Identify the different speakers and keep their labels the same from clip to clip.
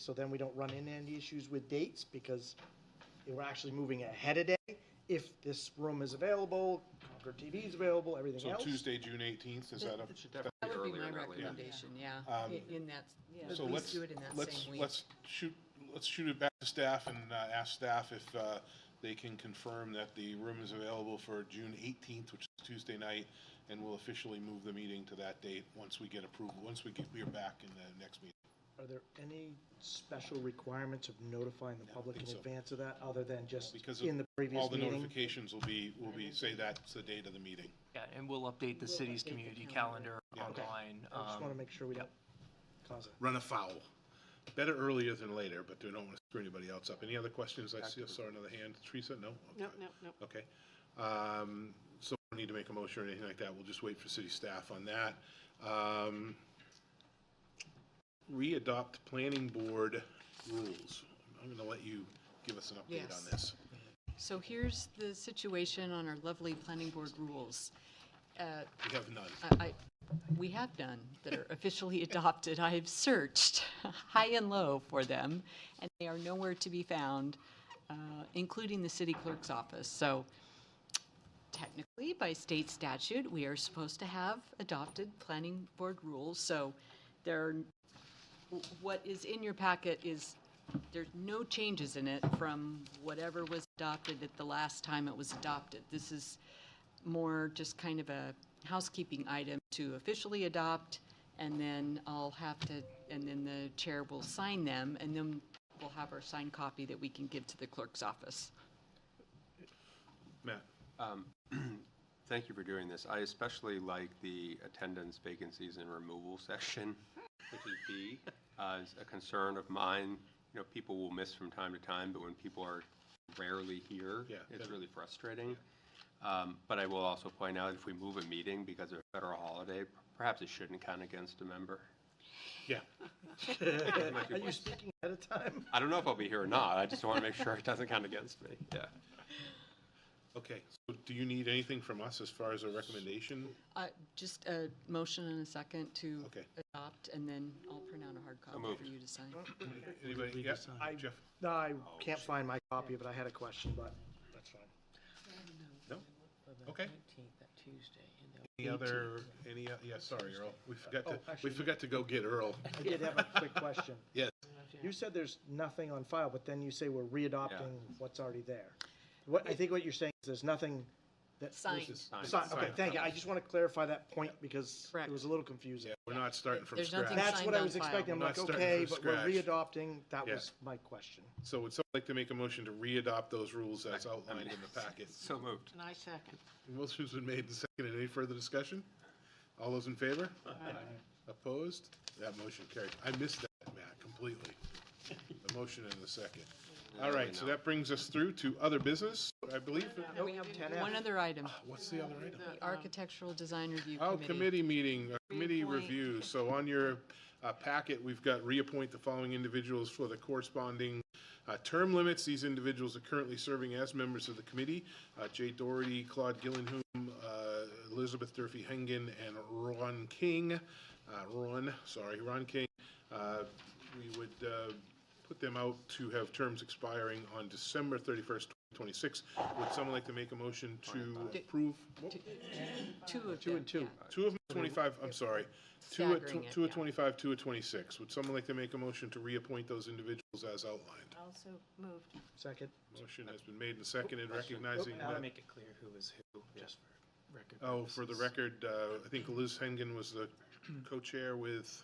Speaker 1: So then we don't run into any issues with dates because we're actually moving ahead a day. If this room is available, Concord TV is available, everything
Speaker 2: So
Speaker 1: else.
Speaker 2: Tuesday, June eighteenth, is that a?
Speaker 3: It should
Speaker 2: that-
Speaker 3: That would be my
Speaker 2: later.
Speaker 3: recommendation, yeah,
Speaker 2: Um,
Speaker 3: i- in that, at
Speaker 2: So
Speaker 3: least
Speaker 2: let's,
Speaker 3: do it in that
Speaker 2: let's,
Speaker 3: same week.
Speaker 2: let's shoot, let's shoot it back to staff and uh, ask staff if uh, they can confirm that the room is available for June eighteenth, which is Tuesday night, and we'll officially move the meeting to that date once we get approval, once we get, we are back in the next meeting.
Speaker 1: Are there any special requirements of notifying the public in
Speaker 2: think so.
Speaker 1: advance of that, other than just
Speaker 2: Because
Speaker 1: in the
Speaker 2: of-
Speaker 1: previous
Speaker 2: all the
Speaker 1: meeting?
Speaker 2: notifications will be, will be, say that's the date of the meeting.
Speaker 4: Yeah, and we'll update the city's community calendar
Speaker 2: Yeah. Okay.
Speaker 4: online.
Speaker 1: I just
Speaker 4: um,
Speaker 1: want to make sure we don't
Speaker 4: yep.
Speaker 1: cause it.
Speaker 2: Run afoul. Better earlier than later, but we don't want to screw anybody else up. Any other questions? I see, I saw another hand. Teresa, no?
Speaker 5: No,
Speaker 2: Okay.
Speaker 5: no, no.
Speaker 2: Okay. Um, So we don't need to make a motion or anything like that. We'll just wait for city staff on that. Um, Re-adopt planning board rules. I'm going to let you give us an update on
Speaker 3: Yes.
Speaker 2: this.
Speaker 3: So here's the situation on our lovely planning board rules. Uh,
Speaker 2: We have none.
Speaker 3: I, I- we have none that are officially adopted. I have searched high and low for them, and they are nowhere to be found, uh, including the city clerk's office. So technically, by state statute, we are supposed to have adopted planning board rules. So there, are- what is in your packet is, there's no changes in it from whatever was adopted at the last time it was adopted. This is more just kind of a housekeeping item to officially adopt, and then I'll have to, and then the chair will sign them, and then we'll have our signed copy that we can give to the clerk's office.
Speaker 2: Matt?
Speaker 6: Thank you for doing this. I especially like the attendance vacancies and removal section, which is B. Uh, It's a concern of mine. You know, people will miss from time to time, but when people are rarely here,
Speaker 2: Yeah,
Speaker 6: it's
Speaker 2: that-
Speaker 6: really frustrating. Um, But I will also point out, if we move a meeting because of a federal holiday, perhaps it shouldn't count against a member.
Speaker 2: Yeah.
Speaker 6: might be
Speaker 1: Are you
Speaker 6: worse.
Speaker 1: speaking ahead of time?
Speaker 6: I don't know if I'll be here or not. I just want to make sure it doesn't count against me. Yeah.
Speaker 2: Okay. So do you need anything from us as far as a recommendation?
Speaker 3: Uh, Just a motion and a second to
Speaker 2: Okay.
Speaker 3: adopt, and then I'll print out a hard copy
Speaker 6: moved.
Speaker 3: for you to sign.
Speaker 2: Anybody? Yeah, Jeff?
Speaker 1: No, I
Speaker 2: Oh,
Speaker 1: can't find my copy, but I had a question, but that's fine.
Speaker 2: No? Okay. Any other, any, o- yeah, sorry, Earl. We forgot
Speaker 1: Oh,
Speaker 2: to, we
Speaker 1: actually-
Speaker 2: forgot to go get Earl.
Speaker 1: I did have a quick question.
Speaker 2: Yes.
Speaker 1: You said there's nothing on file, but then you say we're readopting what's already there. What, I think what you're saying is there's nothing that.
Speaker 3: Signed.
Speaker 6: Signed.
Speaker 1: Sign- okay,
Speaker 2: Signed.
Speaker 1: thank you. I just want to clarify that point because it
Speaker 3: Correct.
Speaker 1: was a little confusing.
Speaker 2: Yeah, we're not starting from
Speaker 3: There's nothing-
Speaker 2: scratch.
Speaker 1: That's
Speaker 3: Signed
Speaker 1: what I
Speaker 3: on
Speaker 1: was
Speaker 3: file.
Speaker 1: expecting. I'm
Speaker 2: We're
Speaker 1: like,
Speaker 2: not starting
Speaker 1: okay,
Speaker 2: from
Speaker 1: but we're
Speaker 2: scratch.
Speaker 1: readopting. That
Speaker 2: Yeah.
Speaker 1: was my question.
Speaker 2: So would someone like to make a motion to re-adopt those rules as outlined in the packet?
Speaker 6: So moved.
Speaker 5: And I second.
Speaker 2: Motion's been made and seconded. Any further discussion? All those in favor? Opposed? That motion carried. I missed that, Matt, completely. The motion and the second. All right, so that brings us through to other business, I believe.
Speaker 3: And we have
Speaker 1: 10F.
Speaker 3: one other item,
Speaker 2: What's the other item?
Speaker 5: The, um,
Speaker 3: Architectural Design Review
Speaker 2: Uh, Oh,
Speaker 3: Committee.
Speaker 2: committee meeting, uh, committee
Speaker 5: Reappoint.
Speaker 2: review. So on your uh, packet, we've got reappoint the following individuals for the corresponding uh, term limits. These individuals are currently serving as members of the committee. Uh, Jay Doherty, Claude Gillenhum, uh, Elizabeth Durfee Hengen, and Ron King. Uh, Ron, sorry, Ron King. Uh, We would uh, put them out to have terms expiring on December 31st, 2026. Would someone like to make a motion to approve? Whoa.
Speaker 3: Two of
Speaker 1: Two
Speaker 3: them,
Speaker 1: and two.
Speaker 3: yeah.
Speaker 2: Two of them, 25, I'm sorry. Two at,
Speaker 3: Staggering it,
Speaker 2: two at
Speaker 3: yeah.
Speaker 2: 25, two at 26. Would someone like to make a motion to reappoint those individuals as outlined?
Speaker 5: Also moved.
Speaker 1: Second,
Speaker 2: Motion has been made and seconded, recognizing
Speaker 7: I want to
Speaker 2: that.
Speaker 7: make it clear who is who, just for record.
Speaker 2: Oh, for the record, uh, I think Liz Hengen was the co-chair with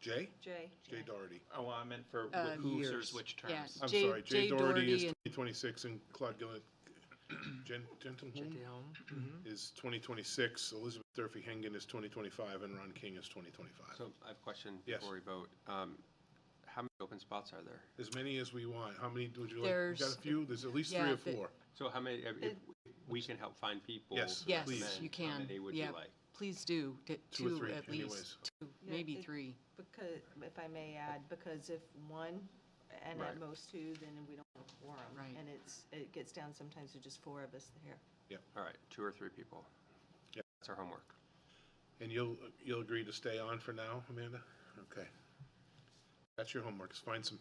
Speaker 2: Jay?
Speaker 5: Jay.
Speaker 2: Jay Doherty.
Speaker 7: Oh, I meant for
Speaker 3: Uh,
Speaker 7: who
Speaker 1: years.
Speaker 7: serves which
Speaker 3: Yeah,
Speaker 7: terms.
Speaker 2: I'm
Speaker 3: Jay-
Speaker 2: sorry, Jay Doherty is
Speaker 3: and
Speaker 2: 2026 and Claude Gillen, Gen- Gentleman is 2026, Elizabeth Durfee Hengen is 2025, and Ron King is 2025.
Speaker 6: So I have a question
Speaker 2: Yes.
Speaker 6: before we vote. Um, How many open spots are there?
Speaker 2: As many as we want. How many would you like? We got
Speaker 3: There's-
Speaker 2: a few? There's at least three
Speaker 3: Yeah,
Speaker 2: or
Speaker 3: the-
Speaker 2: four.
Speaker 6: So how many, if if we can help find people?
Speaker 2: Yes,
Speaker 6: to
Speaker 3: Yes,
Speaker 2: please.
Speaker 6: recommend,
Speaker 3: you
Speaker 6: How
Speaker 3: can.
Speaker 6: many would
Speaker 3: Yeah.
Speaker 6: you like?
Speaker 3: Please do, t-
Speaker 2: Two or
Speaker 3: two
Speaker 2: three,
Speaker 3: at
Speaker 2: anyways.
Speaker 3: least, two,
Speaker 5: Yeah,
Speaker 3: maybe
Speaker 5: it-
Speaker 3: three.
Speaker 8: Because, if I may add, because if one and
Speaker 6: Right.
Speaker 8: at most two, then we don't have a quorum.
Speaker 3: Right.
Speaker 8: And it's, it gets down sometimes to just four of us here.
Speaker 6: All right, two or three people.
Speaker 2: Yeah.
Speaker 6: That's our homework.
Speaker 2: And you'll, you'll agree to stay on for now, Amanda? Okay. That's your homework, is find some people